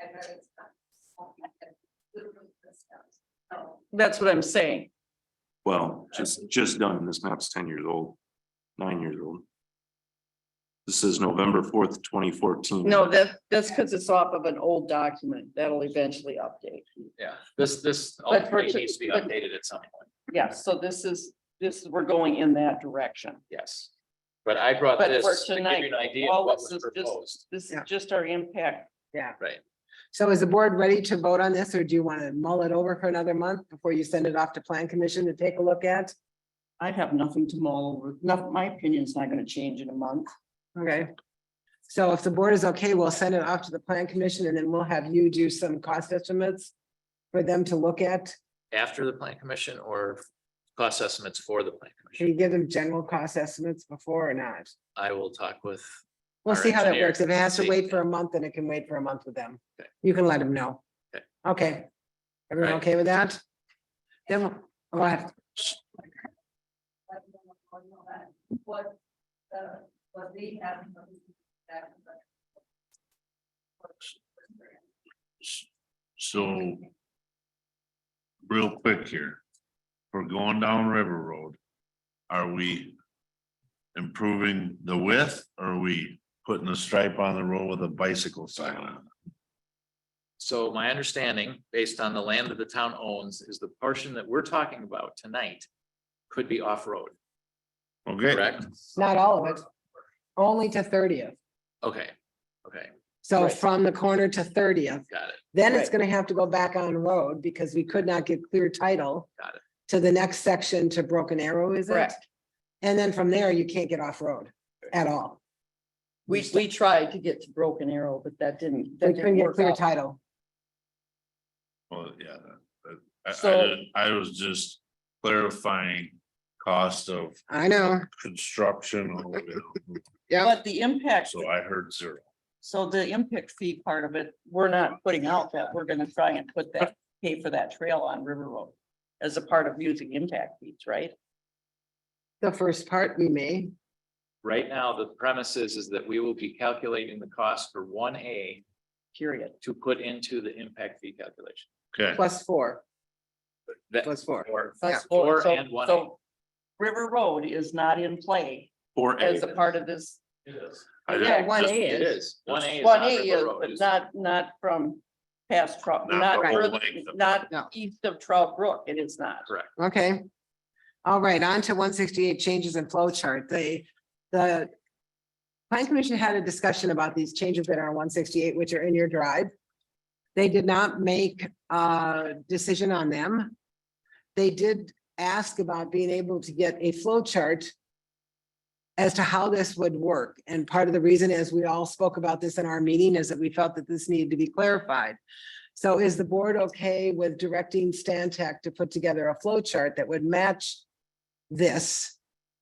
it's not something that would really discuss. So, That's what I'm saying. Well, just, just done. This map's ten years old, nine years old. This is November fourth, twenty fourteen. Mm-hmm. No, that, that's because it's off of an old document. That'll eventually update. Yeah, this, this But ultimately purchase- needs to be but- updated at some point, Yeah, so this is, this, is we're going in that direction. yes. But I brought But for this to give you tonight, an idea all of what this was is just- proposed. This is Yeah. just our impact. Right, So is the board ready to vote on this, or do you want to mull it over for another month before you send it off to plan commission to take a look at? I have nothing to mull over. No, my opinion's not gonna change in a month. Okay. So if the board is okay, we'll send it off to the plan commission and then we'll have you do some cost estimates for them to look at. after the plan commission or cost estimates for the plan Can commission. you give them general cost estimates before or not? I will talk with, We'll Our see how that engineer works. If it has to see. wait for a month, then it can wait for a month with them. Okay. You can let them know. Okay. Okay. Everyone Right. okay with that? Then, we'll- go ahead. let me know what you know that What, uh, what they have. what we have, but- So. Real quick here. We're going down River Road. Are we? Improving the width? or Are we putting a stripe on the road with a bicycle sign on? it? so my understanding, based on the land that the town owns, is the portion that we're talking about tonight could be off-road, Okay, correct? Not all of it. Only to thirtieth. Okay, okay, So Right. from the corner to thirtieth, got it, then it's Right. gonna have to go back on road because we could not get clear title. Got it. To the next section to Broken Arrow, is it? Correct. And then from there, you can't get off road at all. We, we tried to get to Broken Arrow, but that didn't, We that couldn't didn't get work clear out. title. well, yeah. that- that- I- I, So- didn't- I was just clarifying cost of I know, construction. all of it. yeah, But the impact, So I heard zero. so the impact fee part of it, we're not putting out that. We're gonna try and put that, pay for that trail on River Road as a part of using impact fees, right? the first part we may, right now, the premise is, is that we will be calculating the cost for one A Period. to put into the impact fee calculation. Okay, plus four, That, plus four. or Yeah. That's four. Four So- and one. so River Road is not in play Or as A, a part of this. It is. I Yeah, didn't- one just- A It is. is. One A is. One on A River is, Road, but is- not, not from past Trout, Not the not, whole further- length of- No. not east of Trout Brook. It is not. Correct. Okay. All right, on to one sixty-eight changes in flow chart. They, the Plan Commission had a discussion about these changes that are on one sixty-eight, which are in your drive. They did not make a decision on them. They did ask about being able to get a flow chart as to how this would work. And part of the reason is we all spoke about this in our meeting is that we felt that this needed to be clarified. So is the board okay with directing Stan Tech to put together a flow chart that would match this?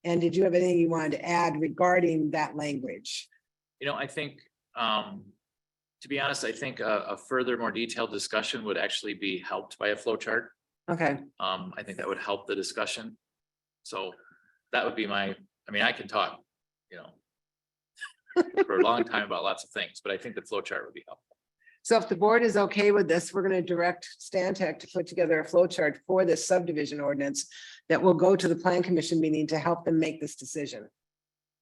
And did you have anything you wanted to add regarding that language? You know, I think, um, to be honest, I think a, a further, more detailed discussion would actually be helped by a flow chart. Okay, Um, I think that would help the discussion. So that would be my, I mean, I can talk, you know, for a long time about lots of things, but I think the flow chart would be helpful. so if the board is okay with this, we're gonna direct Stan Tech to put together a flow chart for this subdivision ordinance that will go to the plan commission meeting to help them make this decision.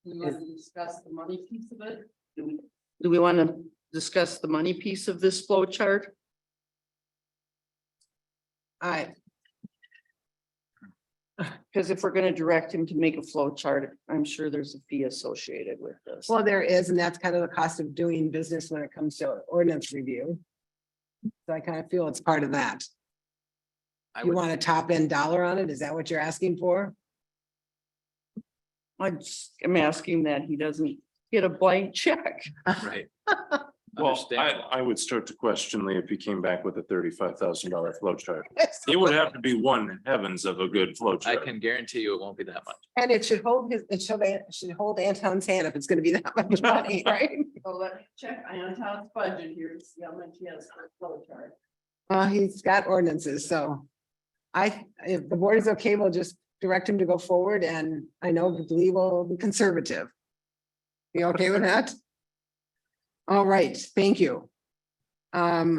Do wanna discuss the money piece of it? Do we want to discuss the money piece of this flow chart? All right, Because if we're going to direct him to make a flow chart, I'm sure there's a fee associated with this. well, there is, and that's kind of the cost of doing business when it comes to ordinance review. So I kind of feel it's part of that. I You would, want a top end dollar on it? Is that what you're asking for? I just am asking that he doesn't get a blank check. right. well, I, Understand. I would start to question Lee if he came back with a thirty-five thousand dollar flow chart. It would have to be one heavens of a good flow I chart. can guarantee you it won't be that much. And it should hold his, it should, it should hold Anton's hand if it's gonna be that much money, right? So let me check Anton's budget here to see how much he has for flow chart. Well, Uh, he's got ordinances, so. I, if the board is okay, we'll just direct him to go forward and I know Lee will be conservative. You okay with that? All right, thank you. Um,